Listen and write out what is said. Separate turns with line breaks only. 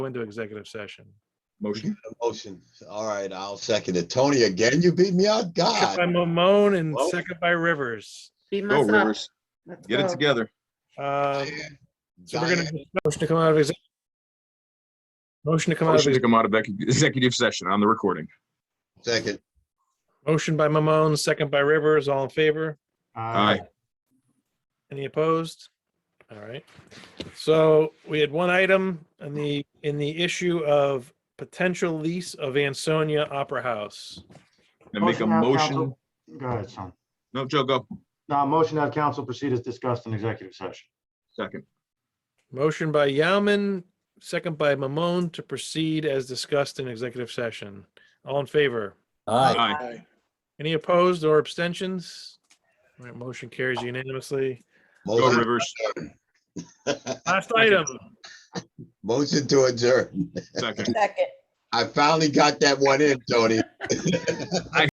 into executive session.
Motion?
A Motion. All right, I'll second it. Tony, again, you beat me
Second
out.
By
God.
Mamone and
Well-
second by Rivers.
Beat
Go,
us up.
Rivers.
Let's
Get it
go.
together.
Uh,
Diane,
So we're gonna,
Diane,
motion to come out of exec. Motion to come out of,
Motion to
exec-
come out of ec- executive session on the recording.
Second.
motion by Mamone, second by Rivers, all in favor?
Aye.
Any opposed? All right. So we had one item in the, in the issue of potential lease of Ansonia Opera House.
And make a
Motion to have
motion.
council- Go ahead, son.
No, Joe, go.
Now, motion to have council proceed as discussed in executive session.
Second.
Motion by Yauman, second by Mamone to proceed as discussed in executive session. All in favor?
Aye.
Any opposed or abstentions? All right, motion carries unanimously.
Go,
Motion
Rivers.
Last item,
motion to adjourn.
Second.
Second.
I finally got that one in, Tony.